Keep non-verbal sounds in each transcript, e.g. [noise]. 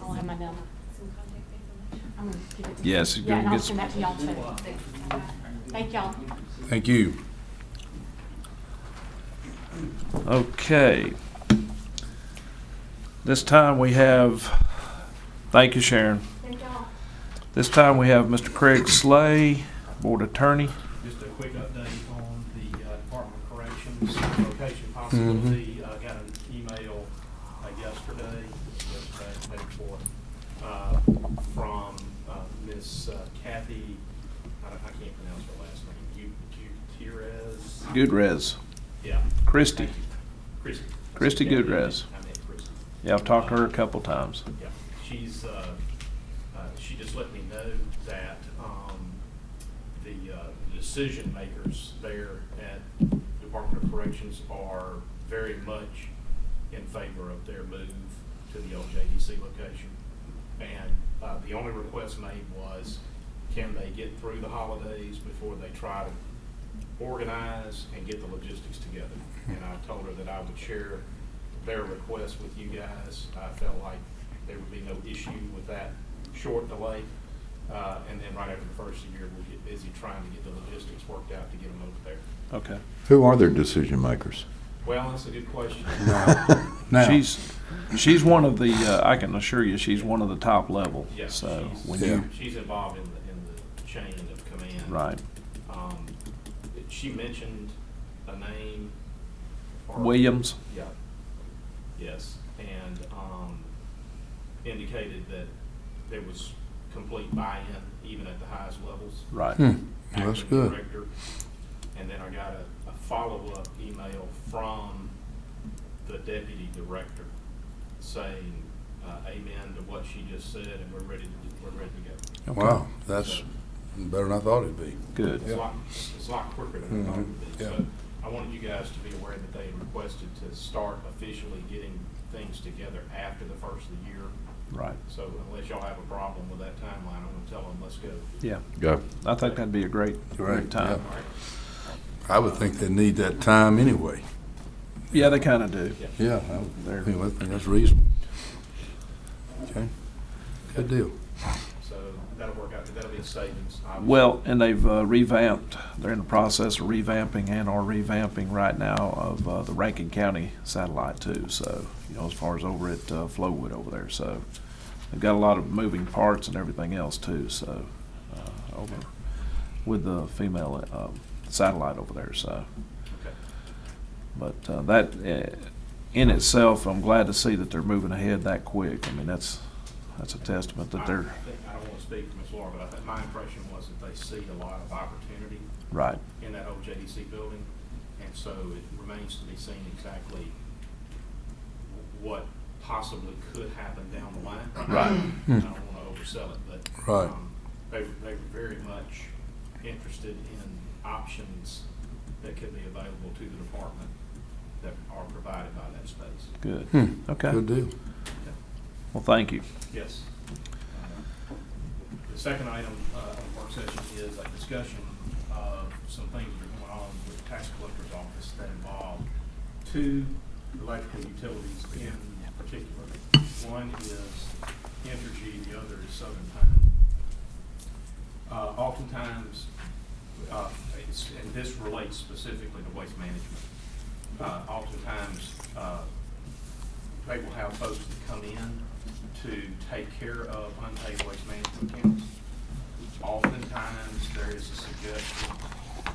have my number. Some contact information. I'm gonna give it to you. Yes, Yeah, and I'll get- send that to y'all too. Thank y'all. Thank you. Okay. This time we have, thank you, Sharon. Thank y'all. This time we have Mr. Craig Slay, Board Attorney. Just a quick update on the uh, Department of Corrections location Mm-hmm. possibility. I got an email uh, yesterday, yesterday, day before, uh, from uh, Miss uh, Kathy, I don't- I can't pronounce her last name, Gu- Gutierrez? Goodrez. Yeah. Christie. Thank you. Christie. Christie Gutierrez. I meant Christie. Yeah, I've talked to her a couple times. Yeah, she's, uh, uh, she just let me know that, um, the, uh, decision makers there at Department of Corrections are very much in favor of their move to the LJDC location. And, uh, the only request made was, can they get through the holidays before they try to organize and get the logistics together? And I told her that I would share their request with you guys. I felt like there would be no issue with that short delay. Uh, and then right after the first of the year, we'll get busy trying to get the logistics worked out to get them over there. Okay. Who are their decision makers? Well, that's a good question. [laughs] Now, She's, she's one of the, uh, I can assure you, she's one of the top level. Yeah, So she's- when Yeah. you, She's involved in the, in the chain of command. right. Um, she mentioned a name. or- Williams, Yeah. Yes, and um, indicated that there was complete buy-in, even at the highest levels. right. hmm, well, that's acting good. director. And then I got a, a follow-up email from the deputy director saying, uh, amen to what she just said, and we're ready to, we're ready to go. Wow, that's better than I thought it'd be. Good. It's a lot, it's a lot quicker than I thought it would be. Mhm, yeah. So I wanted you guys to be aware that they had requested to start officially getting things together after the first of the year. Right. So unless y'all have a problem with that timeline, I'm gonna tell them, let's go. Yeah. Go. I think that'd be a great, Right, great time. All right, I would think they need that time anyway. Yeah, they kind of do. Yeah, I would There. think I think that's reasonable. Okay, good deal. so that'll work out, that'll be a savings. obviously. Well, and they've uh, revamped, they're in the process of revamping and are revamping right now of uh, the Rankin County satellite too. So, you know, as far as over at uh, Flowood over there. So they've got a lot of moving parts and everything else too. So uh, over with the female uh, satellite over there. So, Okay. but uh, that uh, in itself, I'm glad to see that they're moving ahead that quick. I mean, that's, that's a testament that I- they're, I think- I don't want to speak for Ms. Laura, but I think my impression was that they see a lot of opportunity right, in that old JDC building, and so it remains to be seen exactly what possibly could happen down the line. Right. I don't want to oversell it, but. Right. um, They, they were very much interested in options that could be available to the department that are provided by that space. good. Hmm, Okay. Good deal. Well, thank you. Yes. The second item uh, of work session is a discussion of some things that are going on with the tax collector's office that involve two electrical utilities in particular. One is Entergy, the other is Southern Pine. Uh, Oftentimes, uh, it's- and this relates specifically to waste management, uh, oftentimes uh, they will have folks that come in to take care of unpaid waste management accounts. Oftentimes, there is a suggestion,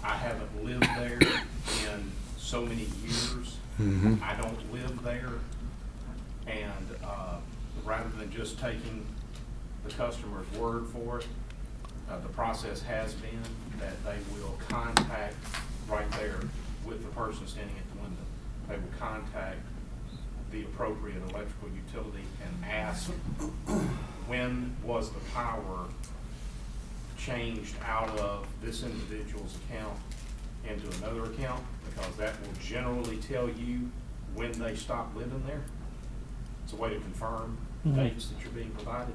I haven't lived there in so many years. Mhm. I don't live there. And, uh, rather than just taking the customer's word for it, uh, the process has been that they will contact right there with the person standing at the window. They will contact the appropriate electrical utility and ask, when was the power changed out of this individual's account into another account? Because that will generally tell you when they stopped living there. It's a way to confirm dates that you're being provided,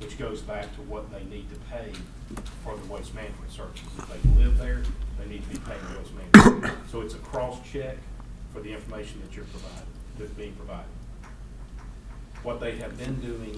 which goes back to what they need to pay for the waste management services. If they live there, they need to be paying the waste management. So it's a cross-check for the information that you're provided, that's being provided. What they have been doing